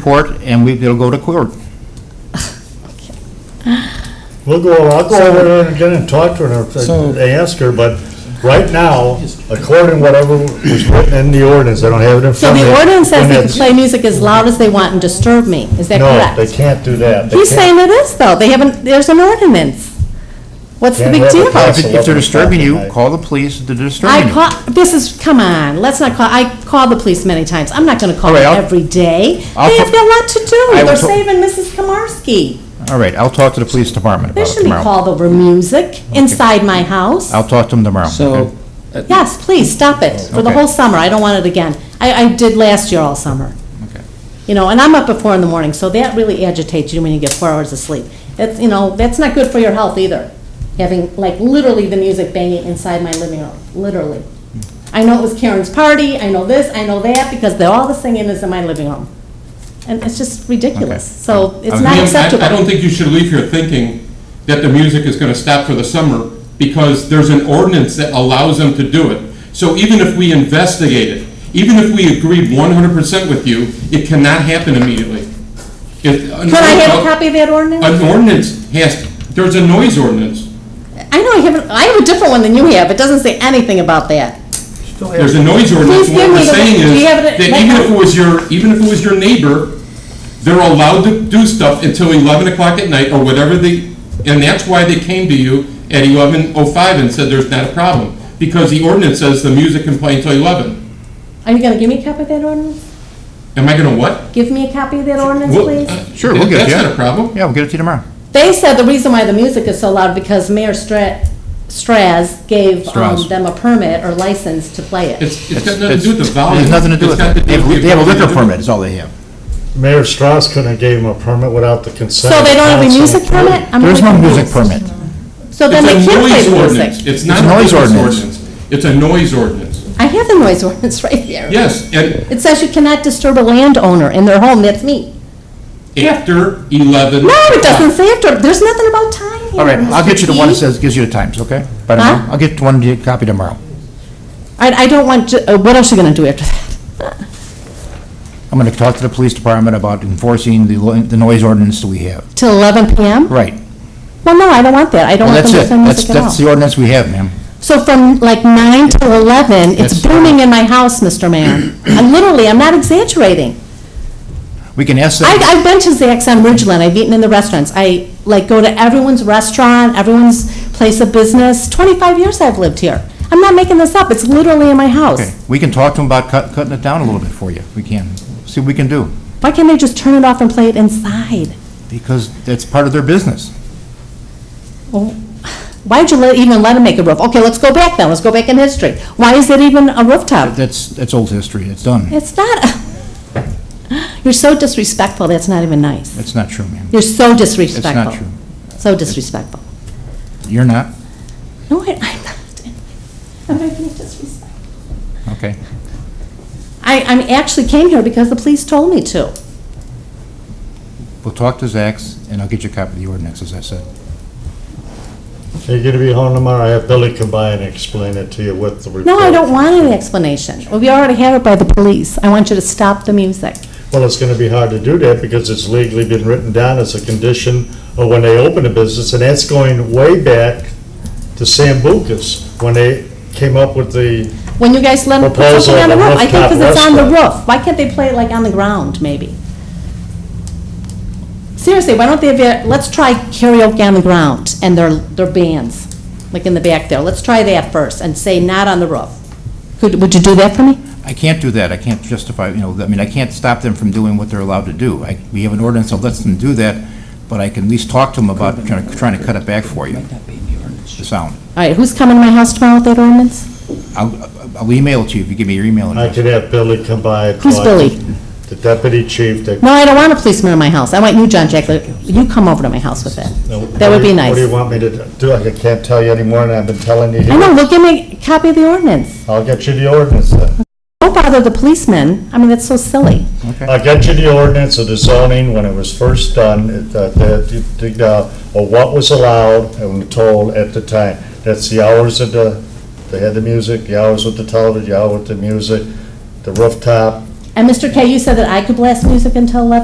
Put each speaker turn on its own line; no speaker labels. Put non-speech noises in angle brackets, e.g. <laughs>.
court, and we, it'll go to court.
We'll go, I'll go over there and again and talk to her,
So-
and ask her, but right now, according to whatever was written in the ordinance, I don't have it in
So
front of me.
the ordinance says they can
when
play music as loud as they want and disturb me, is that
it's- No, they
correct?
can't do that. They
He's
can't-
saying it is, though, they haven't, there's an ordinance. What's the
Can't
big
have
deal?
it
If it- if they're
Absolutely.
disturbing you, call the police, if they're disturbing
I
you.
call, this is, come on, let's not call, I call the police many times, I'm not gonna call
All right,
them
I'll-
every day.
I'll
They have
fo-
got a lot to
I
do,
will
they're
to-
saving Mrs. Komarski.
All right, I'll talk to the police department
They
about it
shouldn't be
tomorrow.
called over music inside my house.
I'll talk to them tomorrow.
So,
okay?
Yes, please, stop it, for the
Okay.
whole summer, I don't want it again. I, I did last year all summer.
Okay.
You know, and I'm up at four in the morning, so that really agitates you when you get four hours of sleep. That's, you know, that's not good for your health either, having, like, literally the music banging inside my living room, literally.
Hmm.
I know it was Karen's party, I know this, I know that, because the- all the singing is in my living room. And it's just ridiculous,
Okay.
so it's
Okay.
not
I- I-
acceptable.
I don't think you should leave here thinking that the music is gonna stop for the summer, because there's an ordinance that allows them to do it. So even if we investigate it, even if we agreed one hundred percent with you, it cannot happen immediately. If-
Could I have a copy of that ordinance?
An ordinance has, there's a noise ordinance.
I know, I have, a- I have a different one than you have, it doesn't say anything about that.
There's a noise ordinance,
Please
what
give me
we're
the-
saying
do
is,
you have it
that
at- like-
even if it was your, even if it was your neighbor, they're allowed to do stuff until eleven o'clock at night, or whatever they, and that's why they came to you at eleven oh five and said there's not a problem, because the ordinance says the music can play until eleven.
Are you gonna give me a copy of that ordinance?
Am I gonna what?
Give me a copy of that ordinance,
Well,
please?
uh,
Sure, we'll get it to you.
That's not a problem.
Yeah, we'll get it to you tomorrow.
They said the reason why the music is so loud because Mayor Stra- Straz gave um,
Strauss.
them a permit or license to play it.
It's, it's got nothing to do with the
It's-
volume.
There's nothing to do
It's
with
got
it. They
with
have
the
they have a liquor
ability to do-
permit, is all they have.
Mayor Strauss couldn't have gave him a permit without the consent.
So
of
they don't have a
council.
music permit? I'm
There's no
really
music
confused.
permit.
So then they
It's a
can play
noise
the
ordinance.
music.
It's not
a
a
noise
business
ordinance.
ordinance. It's a noise ordinance.
I have the noise <laughs> ordinance right there.
Yes, and
It says you cannot disturb a landowner in their home, that's me.
after 11.
No, it doesn't say after, there's nothing about time here.
All right, I'll
Mr.
get you the one that
Key.
says, gives you the times, okay? By tomorrow,
Huh?
I'll get one to you, copy tomorrow.
I, I don't want, to- uh, what else are you gonna do after that?
I'm gonna talk to the police department about enforcing the, lo- the noise ordinance that we have.
Till eleven PM?
Right.
Well, no, I don't want that, I don't
Well,
want
that's it.
them to play
That's,
music at all.
that's the ordinance we have, ma'am.
So from like nine to eleven, it's
Yes.
booming in my house,
<clears throat>
Mr. Mayor. I'm literally, I'm not exaggerating.
We can ask
I,
them,
I've been to Zack's on Ridgeland, I've eaten in the restaurants, I like go to everyone's restaurant, everyone's place of business. Twenty-five years I've lived here. I'm not making this up, it's literally in my
okay,
house.
we can talk to them about cut- cutting it down a little bit for you. We can. See what we can do,
Why can't they just turn it off and play it inside?
because that's part of their business.
Well, Why'd you let, even let him make a roof? Okay, let's go back then, let's go back in history. Why is it even a rooftop?
That's, that's old history. It's done.
It's not, <laughs> a- you're so disrespectful, that's not even nice.
That's not true, ma'am.
You're so
It's
disrespectful.
not true.
So disrespectful.
You're not?
No, I, I'm not. I'm not being disrespectful.
Okay.
I, I actually came here because the police told me to.
We'll talk to Zach's, and I'll get you a copy of the ordinance, as I said.
You're gonna be home tomorrow, I have Billy come by and explain it to you with the report.
No, I don't want any explanation. Well, We already had it by the police. I want you to stop the music.
Well, it's gonna be hard to do that because it's legally been written down as a condition of when they open a business, and that's going way back to Sam Bucas, when they came up with the,
When you guys let them put
Proposal
something on the
of a
roof, I think because it's on the
rooftop
roof. Why can't they play it like on the ground, maybe? Seriously, why don't they, have it- let's try karaoke on the ground and their, their bands, like in the back there. Let's try that first and say not on the roof. Could, would you do that for me?
I can't do that. I can't justify, you know, I mean, I can't stop them from doing what they're allowed to do. I- We have an ordinance that lets them do that, but I can at least talk to them about trying to- trying to cut it back for you,
might not be in the ordinance.
the sound.
All right, who's coming to my house tomorrow with that ordinance?
I'll I'll email it to you if you give me your email
I
address.
could have Billy come by. and
Who's
talk.
Billy?
The deputy chief that.
No, I don't want a policeman in my house. I want you, John Jacob. You come over to my house with it.
no,
That would be
What do you
nice.
want me to do? I can't tell you anymore, and I've been telling you.
I know,
here.
well, give me a copy of the ordinance.
I'll get you the ordinance then.
Don't bother the policeman. I mean, that's so silly.
I got you the ordinance of the zoning when it was first done, it, uh, the- the- the, uh, or what was allowed and told at the time. That's the hours of the, they had the music, the hours with the television, the hour with the music, the rooftop,
And Mr. K, you said that I could blast music until 11?